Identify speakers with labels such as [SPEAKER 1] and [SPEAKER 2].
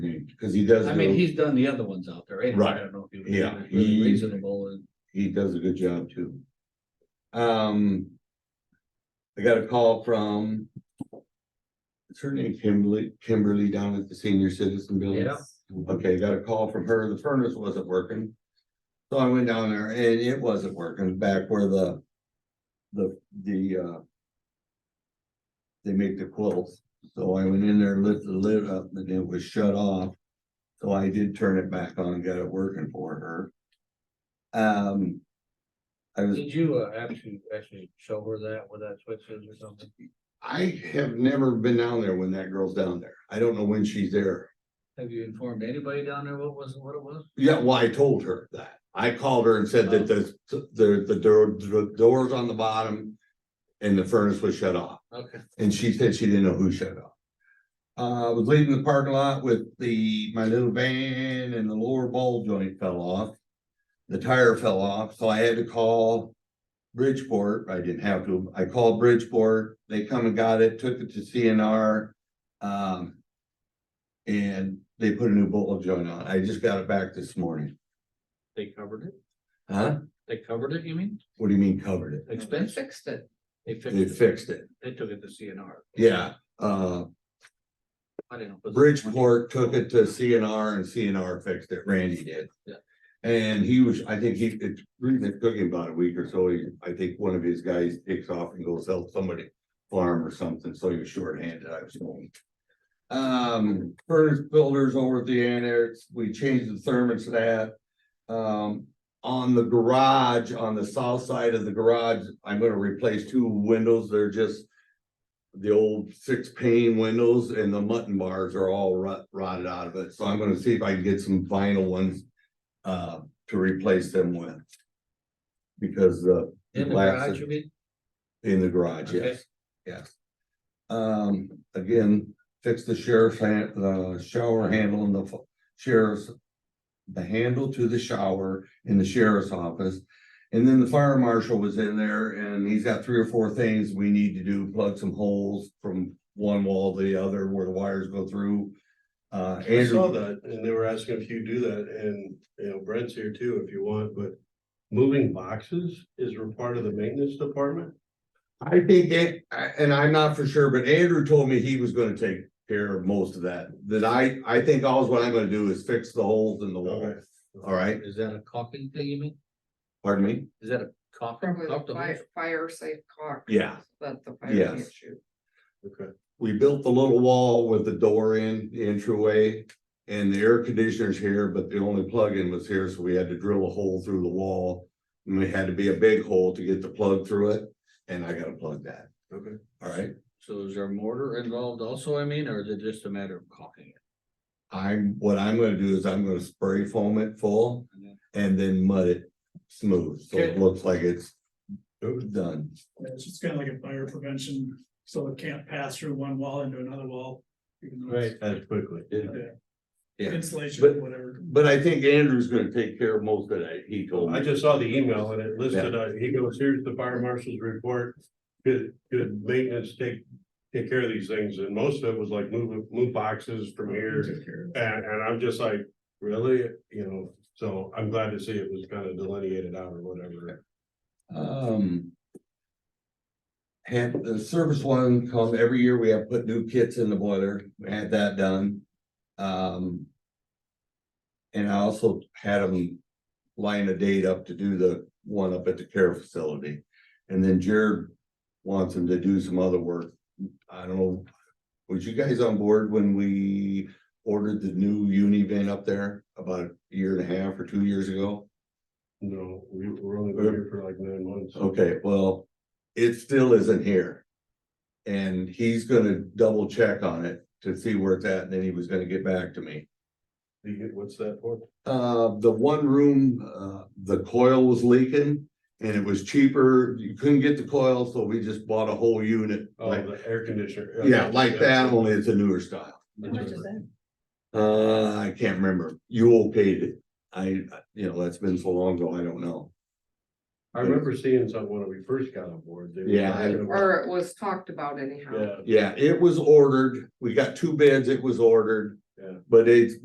[SPEAKER 1] Cause he does,
[SPEAKER 2] I mean,
[SPEAKER 1] do-
[SPEAKER 2] he's done the other ones out there, anyway, I
[SPEAKER 1] Right.
[SPEAKER 2] don't know if he was
[SPEAKER 1] Yeah,
[SPEAKER 2] really
[SPEAKER 1] he-
[SPEAKER 2] reasonable and.
[SPEAKER 1] he does a good job too. Um. I got a call from. Is her name Kimberly, Kimberly down at the senior citizen building?
[SPEAKER 2] Yeah.
[SPEAKER 1] Okay, got a call from her, the furnace wasn't working. So I went down there and it wasn't working back where the. The, the, uh. They make the quilts, so I went in there, lifted the lid up and it was shut off. So I did turn it back on and got it working for her. Um. I was,
[SPEAKER 2] Did you uh, actually, actually show her that with that switch is or something?
[SPEAKER 1] I have never been down there when that girl's down there. I don't know when she's there.
[SPEAKER 2] Have you informed anybody down there what was, what it was?
[SPEAKER 1] Yeah, well, I told her that. I called her and said that the, the, the door, the doors on the bottom. And the furnace was shut off,
[SPEAKER 2] Okay.
[SPEAKER 1] and she said she didn't know who shut off. Uh, I was leaving the parking lot with the, my little van and the lower ball joint fell off. The tire fell off, so I had to call Bridgeport. I didn't have to. I called Bridgeport. They come and got it, took it to CNR. Um, and they put a new bolt joint on. I just got it back this morning.
[SPEAKER 2] They covered it?
[SPEAKER 1] Huh?
[SPEAKER 2] They covered it, you mean?
[SPEAKER 1] What do you mean covered it?
[SPEAKER 2] Expense fixed it. They
[SPEAKER 1] They
[SPEAKER 2] fixed it.
[SPEAKER 1] fixed it.
[SPEAKER 2] They took it to CNR.
[SPEAKER 1] Yeah, uh,
[SPEAKER 2] I didn't know. if it was-
[SPEAKER 1] Bridgeport took it to CNR and CNR fixed it. Randy did.
[SPEAKER 2] Yeah.
[SPEAKER 1] And he was, I think he, it's really it took him about a week or so. He, I think one of his guys takes off and goes help somebody farm or something, so he was shorthanded, I was told. Um, furnace builders over at the annex, we changed the thermostat. Um, on the garage, on the south side of the garage, I'm gonna replace two windows. They're just the old six pane windows and the mutton bars are all rot- rotted out of it. So I'm gonna see if I can get some vinyl ones uh, to replace them with. Because uh
[SPEAKER 2] In the
[SPEAKER 1] Glass
[SPEAKER 2] garage,
[SPEAKER 1] it.
[SPEAKER 2] you mean?
[SPEAKER 1] in the garage,
[SPEAKER 2] Okay.
[SPEAKER 1] yes, yes. Um, again, fix the sheriff's hand, the shower handle and the fu- sheriff's. The handle to the shower in the sheriff's office. And then the fire marshal was in there and he's got three or four things we need to do, plug some holes from one wall to the other where the wires go through. Uh,
[SPEAKER 3] I saw
[SPEAKER 1] Andrew,
[SPEAKER 3] that, and they were asking if you do that, and, you know, Brent's here too, if you want, but moving boxes is a part of the maintenance department?
[SPEAKER 1] I think, it- I- and I'm not for sure, but Andrew told me he was gonna take care of most of that. That I, I think alls what I'm gonna do is fix the holes in the wall.
[SPEAKER 3] Okay.
[SPEAKER 1] Oh. All right,
[SPEAKER 2] Is that a caulking thing, you mean?
[SPEAKER 1] pardon me?
[SPEAKER 2] Is that a caulking?
[SPEAKER 4] Probably
[SPEAKER 2] caulk
[SPEAKER 4] the
[SPEAKER 2] the
[SPEAKER 4] fire,
[SPEAKER 2] holes?
[SPEAKER 4] fire safe cock.
[SPEAKER 1] Yeah.
[SPEAKER 4] That the fire
[SPEAKER 1] Yes.
[SPEAKER 4] can't shoot.
[SPEAKER 3] Okay,
[SPEAKER 1] We built the little wall with the door in, the entryway. And the air conditioner's here, but the only plug-in was here, so we had to drill a hole through the wall. And we had to be a big hole to get the plug through it, and I gotta plug that,
[SPEAKER 3] okay.
[SPEAKER 1] all right?
[SPEAKER 2] So is there mortar involved also, I mean, or is it just a matter of caulking it?
[SPEAKER 1] I'm, what I'm gonna do is I'm gonna spray foam it full
[SPEAKER 2] And then-
[SPEAKER 1] and then mud it smooth, so it
[SPEAKER 2] Okay.
[SPEAKER 1] looks like it's done.
[SPEAKER 5] It's just kind of like a fire prevention, so it can't pass through one wall into another wall. even though it's-
[SPEAKER 3] As quickly.
[SPEAKER 1] Yeah. But-
[SPEAKER 5] Insulation, whatever.
[SPEAKER 1] But I think Andrew's gonna take care of most of that, he told
[SPEAKER 3] I
[SPEAKER 1] me.
[SPEAKER 3] just saw the email and it listed, uh, he goes, here's the fire marshal's report. Good, good maintenance, take, take care of these things, and most of it was like move, move boxes from here. And, and I'm just like, really, you know, so I'm glad to see it was kind of delineated out or whatever.
[SPEAKER 1] Um. Had the service one come every year, we have put new kits in the boiler, we had that done. Um. And I also had them line a date up to do the one up at the care facility. And then Jared wants him to do some other work. I don't know. Was you guys on board when we ordered the new uni van up there about a year and a half or two years ago?
[SPEAKER 3] No, we were only here for like nine months.
[SPEAKER 1] Okay, well, it still isn't here. And he's gonna double check on it to see where it's at, and then he was gonna get back to me.
[SPEAKER 3] You get- What's that for?
[SPEAKER 1] Uh, the one room, uh, the coil was leaking and it was cheaper. You couldn't get the coil, so we just bought a whole unit.
[SPEAKER 3] Oh,
[SPEAKER 1] like-
[SPEAKER 3] the air conditioner.
[SPEAKER 1] Yeah, like that, only it's a newer style. Uh, I can't remember. You okayed it. I, you know, that's been so long ago, I don't know.
[SPEAKER 3] I remember seeing something when we first got on board. they were
[SPEAKER 1] Yeah, I-
[SPEAKER 3] talking about-
[SPEAKER 4] Or it was talked about anyhow.
[SPEAKER 1] Yeah,
[SPEAKER 3] Yeah.
[SPEAKER 1] it was ordered. We got two beds, it was ordered.
[SPEAKER 3] Yeah.
[SPEAKER 1] But it's